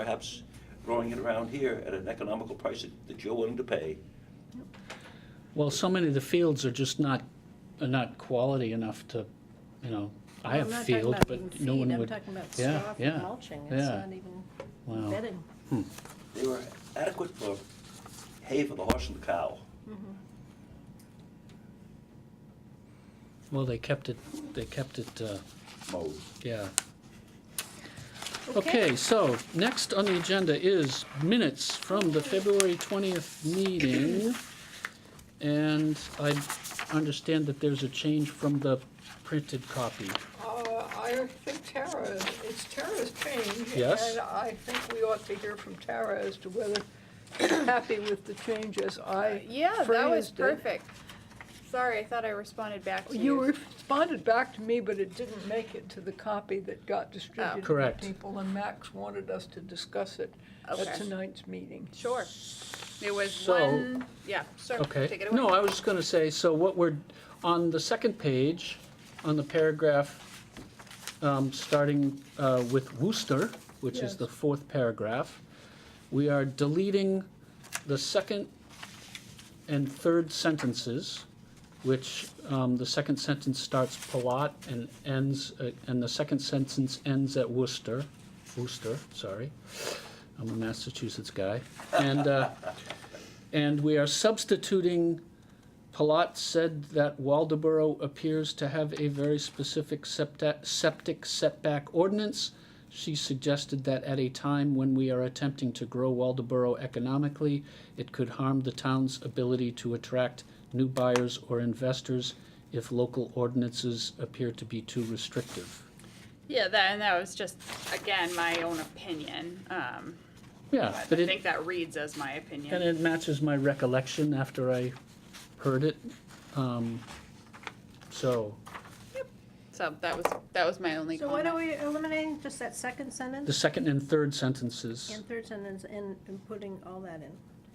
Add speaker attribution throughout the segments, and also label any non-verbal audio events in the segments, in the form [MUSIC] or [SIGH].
Speaker 1: perhaps growing it around here at an economical price that- that you're willing to pay.
Speaker 2: Well, so many of the fields are just not, are not quality enough to, you know, I have field, but no one would.
Speaker 3: I'm talking about
Speaker 2: Yeah,
Speaker 3: straw for
Speaker 2: yeah,
Speaker 3: mulching, it's
Speaker 2: yeah.
Speaker 3: not even
Speaker 2: Wow.
Speaker 3: bedding.
Speaker 1: They were adequate for hay for the horse and the cow.
Speaker 2: Well, they kept it, they kept it, uh,
Speaker 1: mode.
Speaker 2: yeah. Okay, so next on the agenda is minutes from the February 20th meeting. And I understand that there's a change from the printed copy.
Speaker 4: Uh, I think Tara, it's Tara's change.
Speaker 2: Yes.
Speaker 4: And I think we ought to hear from Tara as to whether she's happy with the change as I
Speaker 5: Uh, Yeah, that
Speaker 4: phrased
Speaker 5: was
Speaker 4: it.
Speaker 5: perfect. Sorry, I thought I responded back
Speaker 2: Oh,
Speaker 5: to
Speaker 4: You
Speaker 5: you.
Speaker 4: responded back to me, but it didn't make it to the copy that got distributed to
Speaker 2: Correct.
Speaker 4: people, and Max wanted us to discuss it at
Speaker 5: Okay.
Speaker 4: tonight's meeting.
Speaker 5: Sure. It was
Speaker 2: So-
Speaker 5: one, yeah, sure, take
Speaker 2: Okay,
Speaker 5: it away.
Speaker 2: no, I was just gonna say, so what we're, on the second page, on the paragraph, um, starting, uh, with Worcester, which is
Speaker 4: Yes.
Speaker 2: the fourth paragraph, we are deleting the second and third sentences, which, um, the second sentence starts Palat and ends, uh, and the second sentence ends at Worcester, Worcester, sorry. I'm a Massachusetts guy. And, uh, and we are substituting, Palat said that Waldeboro appears to have a very specific septa- septic setback ordinance. She suggested that at a time when we are attempting to grow Waldeboro economically, it could harm the town's ability to attract new buyers or investors if local ordinances appear to be too restrictive.
Speaker 5: Yeah, that, and that was just, again, my own opinion. Um,
Speaker 2: Yeah,
Speaker 5: but
Speaker 2: but
Speaker 5: I
Speaker 2: it.
Speaker 5: think that reads as my
Speaker 2: And
Speaker 5: opinion.
Speaker 2: it matches my recollection after I heard it. Um, So,
Speaker 5: So that was, that was my only
Speaker 3: So why don't
Speaker 5: comment.
Speaker 3: we eliminate just that second
Speaker 2: the
Speaker 3: sentence
Speaker 2: second and third sentences,
Speaker 3: and third sentence and, and putting all that in?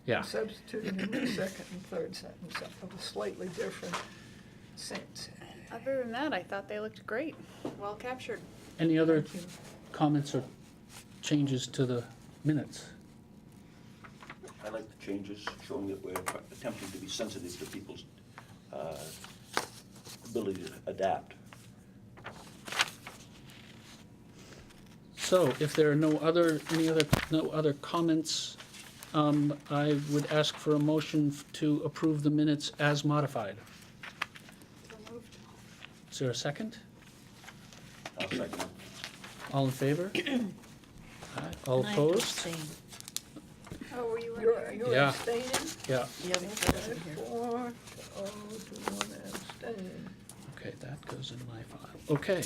Speaker 2: yeah.
Speaker 4: Substituting in the second and third sentence of a slightly different sense.
Speaker 5: Other than that, I thought they looked great, well captured.
Speaker 2: Any other
Speaker 4: Thank you.
Speaker 2: comments or changes to the minutes?
Speaker 1: I like the changes, showing that we're tr- attempting to be sensitive to people's uh, ability to adapt.
Speaker 2: So if there are no other, any other, no other comments, um, I would ask for a motion f- to approve the minutes as modified. Is there a second?
Speaker 1: I'll second it.
Speaker 2: All in
Speaker 4: [CLEARS THROAT]
Speaker 2: favor? Aye. All opposed?
Speaker 5: Oh, were you
Speaker 4: You're, you're
Speaker 2: Yeah.
Speaker 4: abstaining?
Speaker 2: Yeah,
Speaker 4: Okay, Four, oh, to one abstain.
Speaker 2: Okay, that goes in my file. Okay.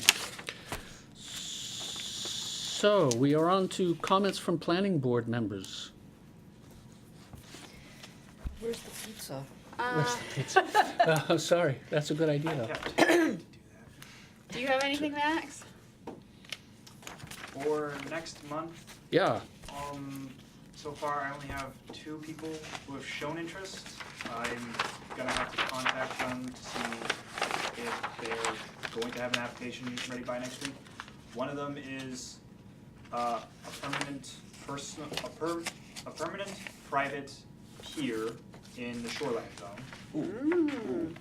Speaker 2: So we are on to comments from planning board members.
Speaker 6: Where's the pizza?
Speaker 2: Where's the pizza? Uh, sorry, that's a good idea though.
Speaker 5: Do you have anything, Max?
Speaker 7: for next month.
Speaker 2: Yeah,
Speaker 7: Um, so far, I only have two people who have shown interest. I'm gonna have to contact them to see if they're going to have an application ready by next week. One of them is uh, a permanent person, a per, a permanent private pier in the shoreline zone.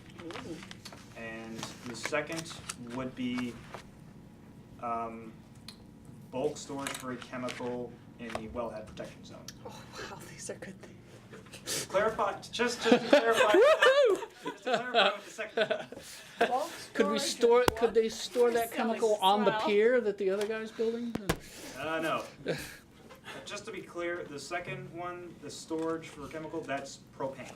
Speaker 7: And the second would be um, bulk storage for a chemical in the wellhead protection zone.
Speaker 5: Oh, wow, these are good things.
Speaker 7: To clarify, just, just to clarify, [LAUGHS] just to clarify with the second one.
Speaker 4: Bulk
Speaker 2: could we
Speaker 4: storage
Speaker 2: store,
Speaker 4: is what?
Speaker 2: could they store that chemical on the
Speaker 5: swell.
Speaker 2: pier that the other guy's building?
Speaker 7: Uh, no. Uh, Just to be clear, the second one, the storage for chemical, that's propane.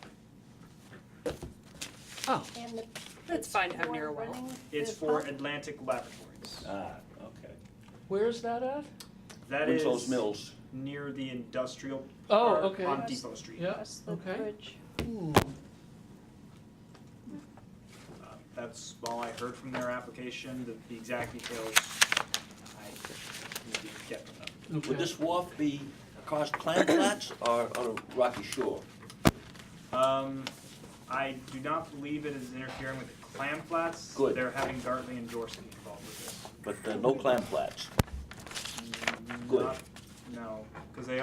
Speaker 2: Oh,
Speaker 3: And the-
Speaker 5: That's fine to have near a well.
Speaker 3: running-
Speaker 7: It's
Speaker 3: the
Speaker 7: for
Speaker 3: pump-
Speaker 7: Atlantic Laboratories.
Speaker 1: Ah, okay.
Speaker 2: where's that at?
Speaker 7: That is
Speaker 1: Winslow's Mills.
Speaker 7: near the industrial
Speaker 2: Oh,
Speaker 7: park
Speaker 2: okay.
Speaker 7: on Depot Street.
Speaker 2: Yeah,
Speaker 3: That's the
Speaker 2: okay.
Speaker 3: bridge.
Speaker 7: Uh, that's all I heard from their application. The, the exact details I will get from them.
Speaker 1: Would
Speaker 2: Okay.
Speaker 1: this wharf be across clam [CLEARS THROAT] flats or on a rocky shore?
Speaker 7: Um, I do not believe it is interfering with the clam flats.
Speaker 1: Good.
Speaker 7: They're having Gartley and Dorsey involved with
Speaker 1: But uh, no clam flats.
Speaker 7: this.
Speaker 1: Good.
Speaker 7: Not- No, because they